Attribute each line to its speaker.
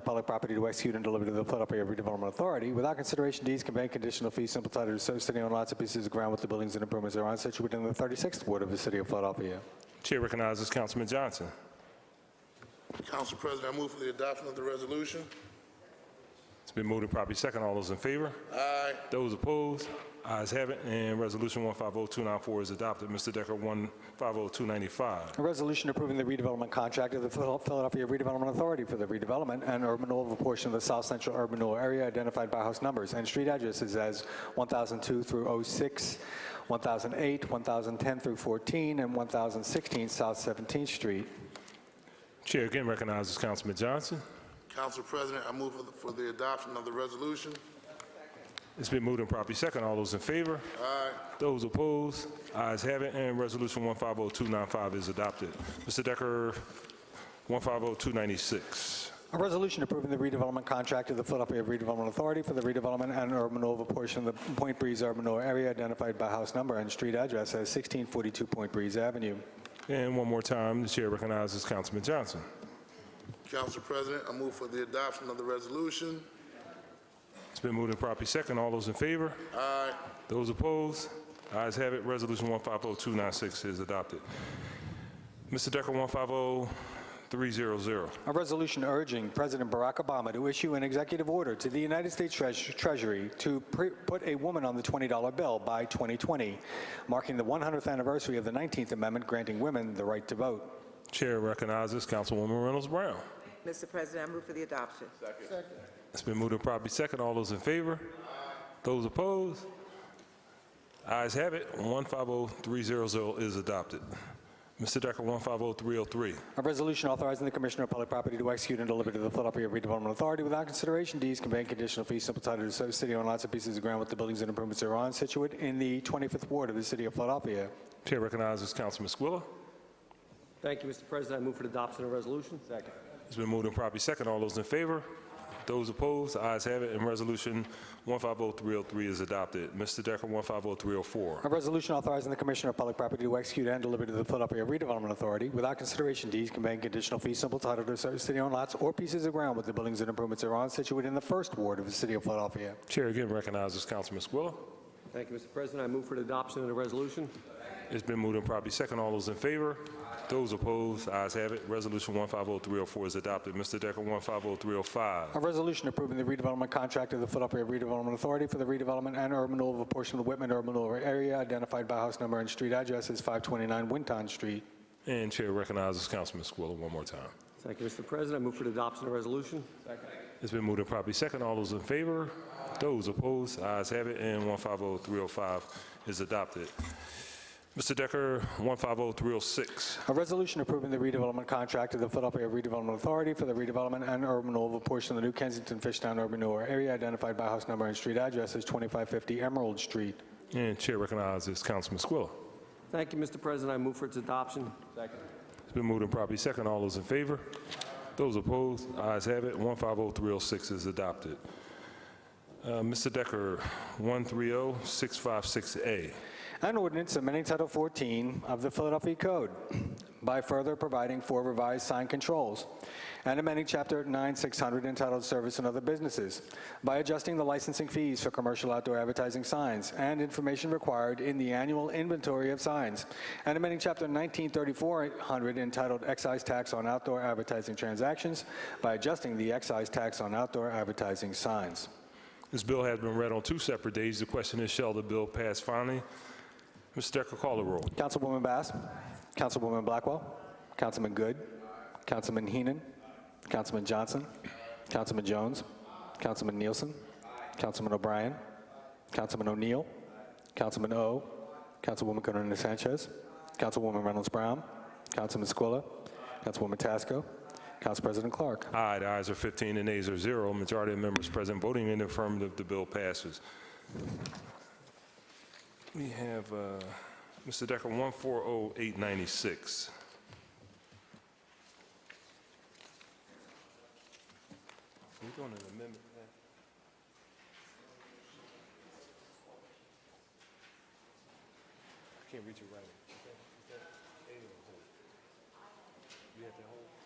Speaker 1: public property to execute and deliver to the Philadelphia Redevelopment Authority. Without consideration, deeds conveying conditional fees simple title to service sitting on lots of pieces of ground with the buildings and improvements thereon situated in the 36th Ward of the City of Philadelphia.
Speaker 2: Chair recognizes Councilman Johnson.
Speaker 3: Council President, I move for the adoption of the resolution.
Speaker 2: It's been moved and properly second. All those in favor?
Speaker 3: Aye.
Speaker 2: Those opposed? Ayes have it, and Resolution 150294 is adopted. Mr. Decker, 150295.
Speaker 1: A resolution approving the redevelopment contract of the Phil- Philadelphia Redevelopment Authority for the redevelopment and urban renewal of a portion of the South Central Urban Renewal Area identified by house numbers and street addresses as 1002 through 06, 1008, 1010 through 14, and 1016 South 17th Street.
Speaker 2: Chair again recognizes Councilman Johnson.
Speaker 3: Council President, I move for the- for the adoption of the resolution.
Speaker 2: It's been moved and properly second. All those in favor? Aye. Those opposed? Ayes have it, and Resolution 150295 is adopted. Mr. Decker, 150296.
Speaker 1: A resolution approving the redevelopment contract of the Philadelphia Redevelopment Authority for the redevelopment and urban renewal of a portion of the Point Breeze Urban Renewal Area identified by house number and street address as 1642 Point Breeze Avenue.
Speaker 2: And one more time, the chair recognizes Councilman Johnson.
Speaker 3: Council President, I move for the adoption of the resolution.
Speaker 2: It's been moved and properly second. All those in favor?
Speaker 3: Aye.
Speaker 2: Those opposed? Ayes have it. Resolution 150296 is adopted. Mr. Decker, 150300.
Speaker 1: A resolution urging President Barack Obama to issue an executive order to the United States Treas- Treasury to pre- put a woman on the $20 bill by 2020, marking the 100th anniversary of the 19th Amendment granting women the right to vote.
Speaker 2: Chair recognizes Councilwoman Reynolds Brown.
Speaker 4: Mr. President, I move for the adoption.
Speaker 2: It's been moved and properly second. All those in favor? Those opposed? Ayes have it. 150300 is adopted. Mr. Decker, 150303.
Speaker 1: A resolution authorizing the Commissioner of Public Property to execute and deliver to the Philadelphia Redevelopment Authority without consideration deeds conveying conditional fees simple title to service city on lots of pieces of ground with the buildings and improvements thereon situate in the 25th Ward of the City of Philadelphia.
Speaker 2: Chair recognizes Councilman Squilla.
Speaker 5: Thank you, Mr. President. I move for the adoption of the resolution. Second.
Speaker 2: It's been moved and properly second. All those in favor? Those opposed? Ayes have it, and Resolution 150303 is adopted. Mr. Decker, 150304.
Speaker 1: A resolution authorizing the Commissioner of Public Property to execute and deliver to the Philadelphia Redevelopment Authority without consideration deeds conveying conditional fee simple title to certain city-owned lots or pieces of ground with the buildings and improvements thereon situated in the First Ward of the City of Philadelphia.
Speaker 2: Chair again recognizes Councilman Squilla.
Speaker 5: Thank you, Mr. President. I move for the adoption of the resolution.
Speaker 2: It's been moved and properly second. All those in favor? Those opposed? Ayes have it, Resolution 150304 is adopted. Mr. Decker, 150305.
Speaker 1: A resolution approving the redevelopment contract of the Philadelphia Redevelopment Authority for the redevelopment and urban renewal of a portion of the Whitman urban renewal area identified by house number and street address as 529 Winton Street.
Speaker 2: And Chair recognizes Councilman Squilla one more time.
Speaker 5: Thank you, Mr. President. I move for the adoption of the resolution.
Speaker 2: It's been moved and properly second. All those in favor? Those opposed? Ayes have it, and 150305 is adopted. Mr. Decker, 150306.
Speaker 1: A resolution approving the redevelopment contract of the Philadelphia Redevelopment Authority for the redevelopment and urban renewal of a portion of the New Kensington Fishtown urban renewal area identified by house number and street address as 2550 Emerald Street.
Speaker 2: And Chair recognizes Councilman Squilla.
Speaker 5: Thank you, Mr. President. I move for its adoption.
Speaker 2: It's been moved and properly second. All those in favor? Those opposed? Ayes have it. 150306 is adopted. Uh, Mr. Decker, 130656A.
Speaker 1: An ordinance amending Title 14 of the Philadelphia Code by further providing for revised sign controls and amending Chapter 9600 entitled Service and Other Businesses by adjusting the licensing fees for commercial outdoor advertising signs and information required in the annual inventory of signs and amending Chapter 193400 entitled Excise Tax on Outdoor Advertising Transactions by adjusting the excise tax on outdoor advertising signs.
Speaker 2: This bill has been read on two separate days. The question is, shall the bill pass finally? Mr. Decker, call the roll.
Speaker 1: Councilwoman Bass, Councilwoman Blackwell, Councilman Good, Councilman Heenan, Councilman Johnson, Councilman Jones, Councilman Nielsen, Councilman O'Brien, Councilman O'Neill, Councilman O, Councilwoman Gunnarina Sanchez, Councilwoman Reynolds Brown, Councilman Squilla, Councilwoman Tasco, Council President Clark.
Speaker 2: Aye, the ayes are 15 and nays are 0. Majority of members present voting in the affirmative, the bill passes. We have, uh, Mr. Decker, 140896. We doing an amendment? I can't read your writing. You have to hold?